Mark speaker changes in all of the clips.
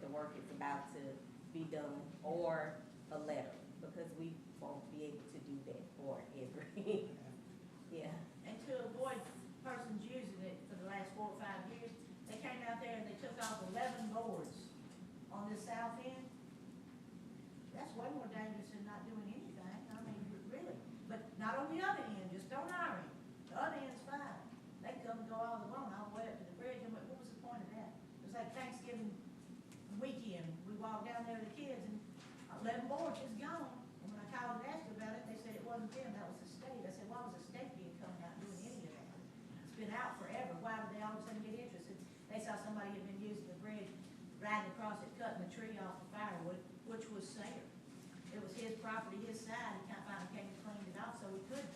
Speaker 1: the work is about to be done, or a letter, because we won't be able to do that for every, yeah.
Speaker 2: And to avoid persons using it for the last four or five years, they came out there and they took off eleven boards on the south end. That's way more dangerous than not doing anything, I mean, really, but not on the other end, just on our end. The other end's fine, they come and go all the long, all the way up to the bridge, and what what was the point of that? It was like Thanksgiving weekend, we walked down there with the kids and eleven boards is gone. And when I called and asked about it, they said it wasn't them, that was the state. I said, why was the state being coming out doing any of that? It's been out forever, why would they all of a sudden get interested? They saw somebody had been using the bridge, riding across it, cutting the tree off the firewood, which was Sayer. It was his property, his side, he kind of finally came and cleaned it off, so we could,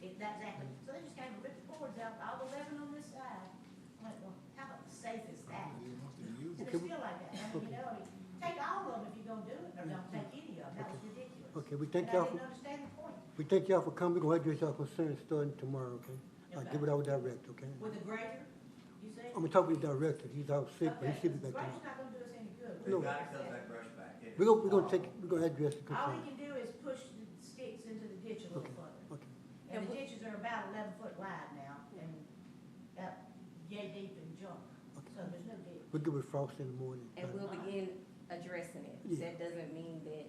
Speaker 2: it, that's exactly. So they just came and ripped the boards out, all eleven on this side. I went, well, how safe is that? And it's still like that, I mean, you know, take all of them if you're gonna do it, or don't take any of them, that was ridiculous.
Speaker 3: Okay, we
Speaker 2: And
Speaker 3: thank
Speaker 2: I
Speaker 3: y'all,
Speaker 2: didn't
Speaker 3: for-
Speaker 2: understand the point,
Speaker 3: we thank y'all for coming, we'll address y'all concerns starting tomorrow, okay? I'll give it out direct, okay?
Speaker 2: with the grader, you see?
Speaker 3: I'm gonna talk with the director, he's out sick, but he should be back
Speaker 2: Grader's
Speaker 3: tomorrow.
Speaker 2: not gonna do us any good.
Speaker 3: They No.
Speaker 4: gotta cut that brush back. It
Speaker 3: We're gonna, we're
Speaker 4: is
Speaker 3: gonna take,
Speaker 4: awful.
Speaker 3: we're gonna address the
Speaker 2: All he
Speaker 3: concerns,
Speaker 2: can do is push the sticks into the ditch a little
Speaker 3: Okay.
Speaker 2: further,
Speaker 3: okay?
Speaker 2: and the ditches are about eleven foot wide now, and about yay deep in junk,
Speaker 3: Okay.
Speaker 2: so there's no ditch.
Speaker 3: We'll get with Frost in the morning.
Speaker 1: And we'll begin addressing it,
Speaker 3: Yeah.
Speaker 1: that doesn't mean that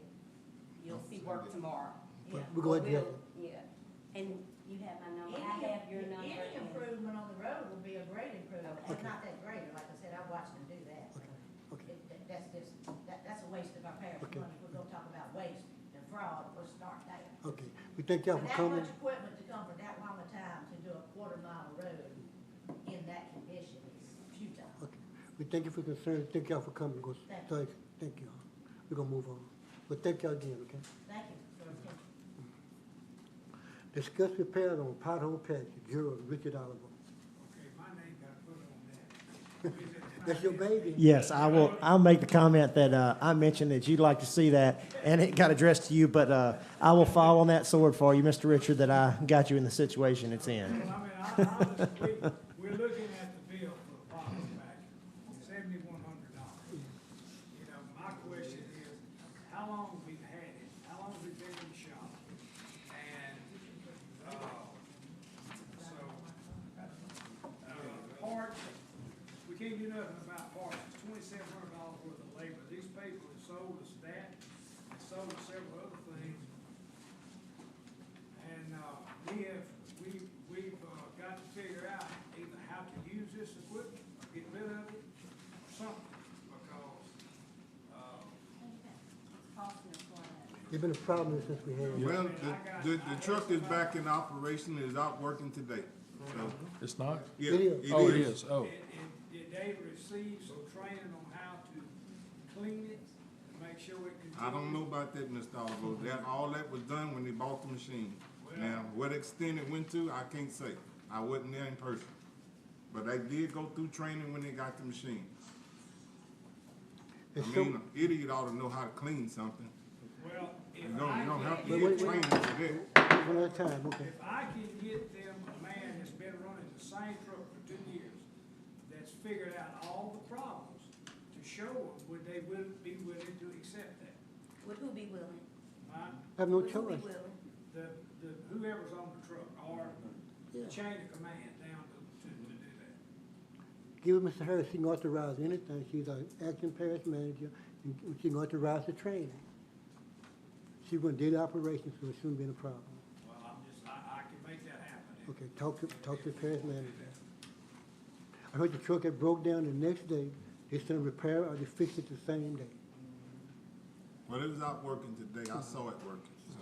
Speaker 1: you'll see work tomorrow.
Speaker 2: Yeah.
Speaker 3: But We're gonna
Speaker 1: But
Speaker 3: address
Speaker 1: we'll- Yeah, and you have my number, I
Speaker 2: Any-
Speaker 1: have your number.
Speaker 2: Any
Speaker 1: and-
Speaker 2: improvement on the road will be a great improvement, and
Speaker 3: Okay.
Speaker 2: not that greater, like I said, I watched them do that. so.
Speaker 3: Okay. okay,
Speaker 2: It- that- That's just, that, that's a waste of our parents'
Speaker 3: Okay.
Speaker 2: money, we're gonna talk about waste and fraud, we'll start there.
Speaker 3: okay. We thank y'all
Speaker 2: For
Speaker 3: for
Speaker 2: that
Speaker 3: coming,
Speaker 2: much equipment to come for that long a time to do a quarter mile road in that condition is futile.
Speaker 3: okay. We thank you for concerns, thank y'all for coming, go,
Speaker 2: Thank
Speaker 3: thank, thank y'all. We're gonna move on, but thank y'all again, okay?
Speaker 2: Thank you for your attention.
Speaker 3: Discuss repair on pothole patch, Bureau of Richard Oliver.
Speaker 5: Okay, my name got put on that.
Speaker 3: That's your baby?
Speaker 6: Yes, I will. I'll make the comment that uh, I mentioned that you'd like to see that, and it got addressed to you. But uh, I will fall on that sword for you, Mr. Richard, that I got you in the situation it's in.
Speaker 5: Well, I mean, I, I, we, we're looking at the bill for the box back, seventy-one hundred dollars. You know, my question is, how long we've had it, how long we've been in the shop? And, uh, so, uh, parts, we can't do nothing about parts, it's twenty-seven hundred dollars worth of labor. These people have sold us that, and sold us several other things. And, uh, we have, we, we've, uh, got to figure out either how to use this equipment, or get rid of it, or something, because, uh,
Speaker 3: There's been a problem since we had. it.
Speaker 7: Well, the, the, the truck is back in operation, is out working today, so,
Speaker 8: It's not?
Speaker 7: yeah,
Speaker 3: It
Speaker 7: it
Speaker 3: is.
Speaker 7: is.
Speaker 8: Oh, it is, oh.
Speaker 5: did, did- did they receive some training on how to clean it, and make sure it continues?
Speaker 7: I don't know about that, Mr. Oliver, that, all that was done when they bought the machine. Now, what extent it went to, I can't say, I wasn't there in person, but they did go through training when they got the machine. I
Speaker 3: It's so-
Speaker 7: mean, an idiot ought to know how to clean something,
Speaker 5: Well,
Speaker 7: you
Speaker 5: if
Speaker 7: don't,
Speaker 5: I
Speaker 7: you don't have
Speaker 5: can
Speaker 7: to
Speaker 3: Wait,
Speaker 7: get
Speaker 3: wait,
Speaker 5: get,
Speaker 3: wait.
Speaker 7: training for that.
Speaker 3: One at a time, okay.
Speaker 5: if I can get them a man that's been running the same truck for two years, that's figured out all the problems, to show them, would they will, be willing to accept that?
Speaker 1: Would who be willing?
Speaker 5: Huh?
Speaker 3: Have no
Speaker 1: Would who be
Speaker 3: choice.
Speaker 1: willing?
Speaker 5: the, the, whoever's on the truck, or the
Speaker 3: Yeah.
Speaker 5: chain of command down to, to, to do that.
Speaker 3: Give Mr. Harris, she can authorize anything. She's our acting parish manager, and she can authorize the training. She run daily operations, so it shouldn't be a problem.
Speaker 5: Well, I'm just, I, I can make that happen.
Speaker 3: Okay, talk to, talk to the parish manager. I heard the truck had broke down the next day. They sent a repair or they fixed it the same day.
Speaker 7: Well, it was out working today, I saw it working, so,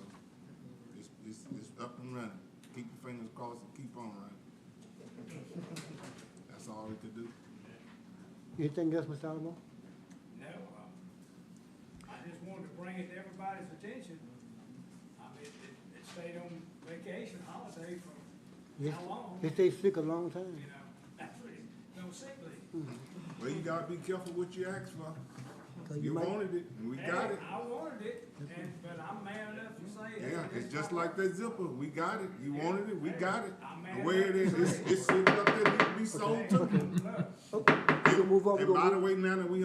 Speaker 7: it's, it's, it's up and running, keep your fingers crossed and keep on running. That's all we could do.
Speaker 3: Anything else, Mr. Alamo?
Speaker 5: No, um, I just wanted to bring it to everybody's attention. I mean, it, it stayed on vacation holiday for
Speaker 3: Yes.
Speaker 5: how long,
Speaker 3: They
Speaker 5: you
Speaker 3: stayed sick a long time.
Speaker 5: know, that's what it, no sick leave.
Speaker 7: Well, you gotta be careful what you ask for,
Speaker 3: So
Speaker 7: you
Speaker 3: might-
Speaker 7: wanted it, and we got
Speaker 5: And
Speaker 7: it,
Speaker 5: I wanted it, and, but I'm mad enough to say it.
Speaker 7: yeah, it's just like that zipper, we got it, you wanted it, we got it.
Speaker 5: I'm
Speaker 7: The
Speaker 5: mad
Speaker 7: way it is,
Speaker 5: enough to
Speaker 7: it's,
Speaker 5: say it.
Speaker 7: it's sitting up there, it be sold
Speaker 5: Hey,
Speaker 7: to,
Speaker 5: look.
Speaker 3: Okay, we're gonna move on. We're
Speaker 7: and
Speaker 3: gonna
Speaker 7: by
Speaker 3: move-
Speaker 7: the way, now that we